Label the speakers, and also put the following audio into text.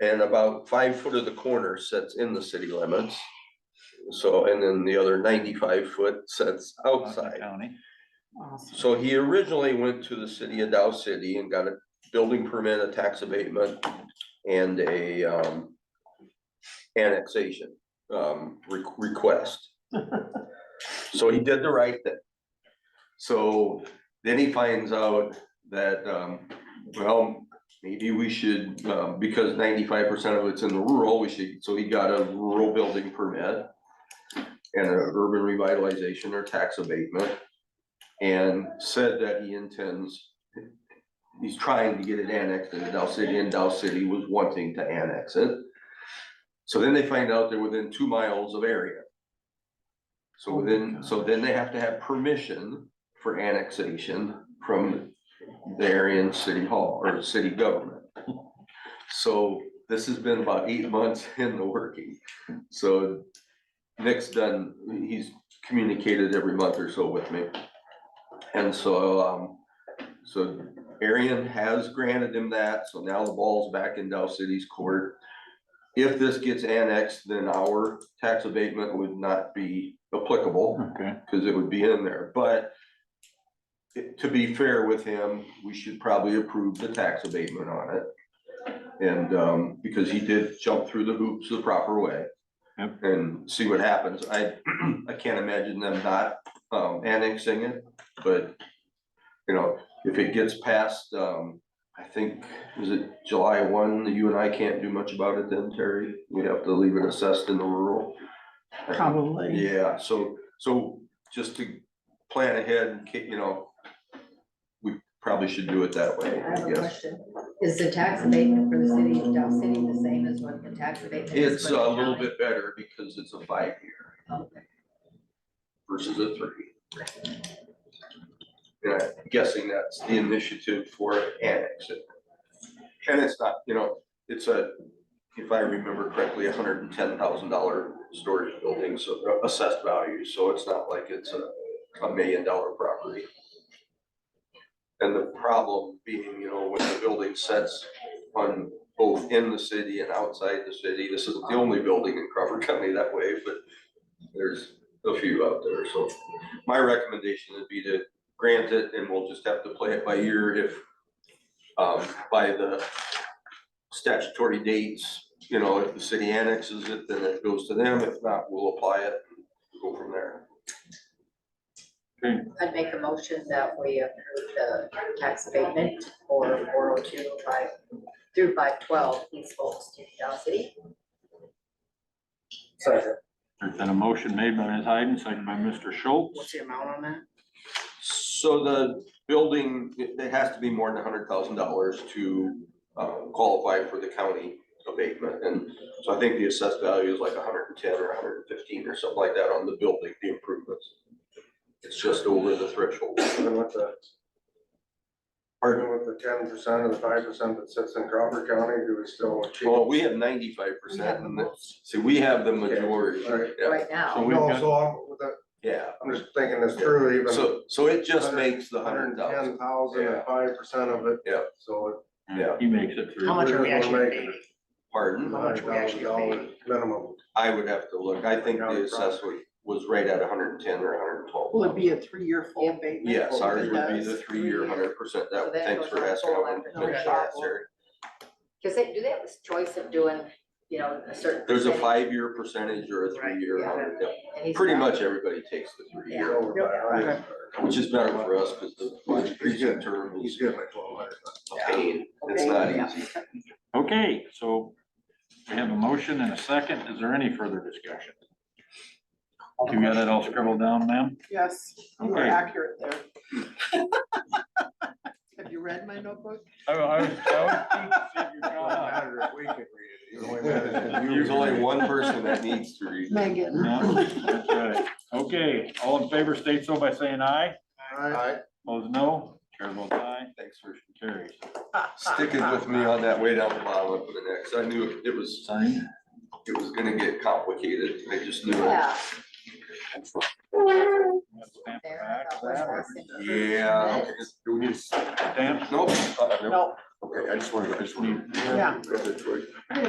Speaker 1: And about five foot of the corner sets in the city limits. So, and then the other ninety-five foot sets outside.
Speaker 2: County.
Speaker 3: Awesome.
Speaker 1: So he originally went to the city of Dow City and got a building permit, a tax abatement and a um. Annexation um re- request. So he did the right thing. So then he finds out that um, well, maybe we should, uh, because ninety-five percent of it's in the rural, we should, so he got a rural building permit. And an urban revitalization or tax abatement and said that he intends, he's trying to get it annexed into Dow City, and Dow City was wanting to annex it. So then they find out they're within two miles of area. So within, so then they have to have permission for annexation from the Aryan City Hall or city government. So this has been about eight months in the working. So Nick's done, he's communicated every month or so with me. And so, um, so Arian has granted him that, so now the ball's back in Dow City's court. If this gets annexed, then our tax abatement would not be applicable
Speaker 2: Okay,
Speaker 1: because it would be in there, but it- to be fair with him, we should probably approve the tax abatement on it. And, um, because he did jump through the hoops the proper way.
Speaker 2: Yep.
Speaker 1: And see what happens. I, I can't imagine them not, um, annexing it, but, you know, if it gets past, um, I think, is it July one, you and I can't do much about it then, Terry? We'd have to leave it assessed in the rural.
Speaker 3: Probably.
Speaker 1: Yeah, so, so just to plan ahead and, ki- you know, we probably should do it that way,
Speaker 4: I have
Speaker 1: I
Speaker 4: a
Speaker 1: guess.
Speaker 4: question. Is the tax abatement for the city of Dow City the same as what the tax abatement is?
Speaker 1: It's
Speaker 4: for the
Speaker 1: a little
Speaker 4: county?
Speaker 1: bit better because it's a five-year
Speaker 4: Okay.
Speaker 1: versus a three. And I'm guessing that's the initiative for annexing. And it's not, you know, it's a, if I remember correctly, a hundred and ten thousand dollar storage building, so assessed value, so it's not like it's a, a million dollar property. And the problem being, you know, when the building sets on both in the city and outside the city, this isn't the only building in Crawford County that way, but there's a few out there, so my recommendation would be to grant it and we'll just have to play it by ear if um, by the statutory dates, you know, if the city annexes it, then it goes to them. If not, we'll apply it and go from there.
Speaker 4: I'd make a motion that we approve the tax abatement for four oh two five through five twelve East Bolton to Dow City.
Speaker 3: Second.
Speaker 2: there's been a motion made by Ms. Hayden, seconded by Mr.
Speaker 3: What's
Speaker 2: Schultz.
Speaker 3: the amount on that?
Speaker 1: So the building, it it has to be more than hundred thousand dollars to uh, qualify for the county abatement. And so I think the assessed value is like hundred and ten or hundred and fifteen or something like that on the building, the improvements. It's just over the threshold.
Speaker 5: Even with the,
Speaker 1: Pardon?
Speaker 5: even with the ten percent or the five percent that sits in Crawford County, do we still achieve?
Speaker 1: Well, we have ninety-five percent and the- see, we have the majority.
Speaker 5: Right.
Speaker 1: Yeah,
Speaker 4: Right now,
Speaker 2: So we've
Speaker 5: No,
Speaker 2: got,
Speaker 5: so I'm, with that-
Speaker 1: Yeah,
Speaker 5: I'm just thinking this through, even
Speaker 1: so, so it just makes the hundred
Speaker 5: hundred and
Speaker 1: thousand.
Speaker 5: ten thousand
Speaker 1: Yeah.
Speaker 5: and five percent of it.
Speaker 1: Yeah.
Speaker 5: So
Speaker 1: yeah.
Speaker 2: he makes it through.
Speaker 3: How much are we
Speaker 5: We're
Speaker 3: actually
Speaker 5: gonna
Speaker 3: paying?
Speaker 5: make it.
Speaker 1: Pardon?
Speaker 5: hundred thousand dollar minimum.
Speaker 1: I would have to look. I think the assessment was right at hundred and ten or hundred and twelve.
Speaker 3: Will it be a three-year full abatement?
Speaker 1: Yes, ours would be
Speaker 3: Does.
Speaker 1: the three-year, hundred percent.
Speaker 4: So
Speaker 1: That,
Speaker 4: that
Speaker 1: thanks
Speaker 4: goes
Speaker 1: for
Speaker 4: on
Speaker 1: asking. I
Speaker 4: full
Speaker 1: wanted to
Speaker 4: after
Speaker 1: make
Speaker 4: the
Speaker 1: sure that's
Speaker 4: travel.
Speaker 1: there.
Speaker 4: because they, do they have this choice of doing, you know, a certain?
Speaker 1: There's a
Speaker 4: percentage?
Speaker 1: five-year percentage or a
Speaker 3: Right,
Speaker 1: three-year,
Speaker 4: yeah.
Speaker 1: hundred, yeah.
Speaker 4: And he's
Speaker 1: Pretty
Speaker 4: not-
Speaker 1: much everybody takes the
Speaker 5: He's
Speaker 1: three-year,
Speaker 5: over by a hundred.
Speaker 1: which is better for us because the recent term
Speaker 5: He's
Speaker 1: is
Speaker 5: getting like twelve hundred.
Speaker 1: a pain. It's not
Speaker 4: Okay, yeah.
Speaker 1: easy.
Speaker 2: Okay, so we have a motion and a second. Is there any further discussion? You got it all scribbled down, ma'am?
Speaker 3: Yes, you were
Speaker 2: Okay.
Speaker 3: accurate there. Have you read my notebook?
Speaker 2: I, I was,
Speaker 5: Matter if we can read it, even when that is-
Speaker 1: There's only one person that needs to read. it.
Speaker 3: Megan.
Speaker 2: That's right. Okay, all in favor state so by saying aye.
Speaker 5: Alright,
Speaker 2: Opposed, no. Chair votes aye.
Speaker 1: Thanks for
Speaker 2: Carries.
Speaker 1: sticking with me on that way down the bottom for the next. I knew it was,
Speaker 2: Sign.
Speaker 1: it was gonna get complicated. I just knew it.
Speaker 4: Yeah.
Speaker 2: Stamp the
Speaker 4: There, I
Speaker 2: back of
Speaker 4: thought was
Speaker 2: that.
Speaker 4: last in-
Speaker 1: Yeah.
Speaker 2: Stamp.
Speaker 1: Nope.
Speaker 3: No,
Speaker 6: Okay, I just wanted, I just wanted.
Speaker 3: yeah.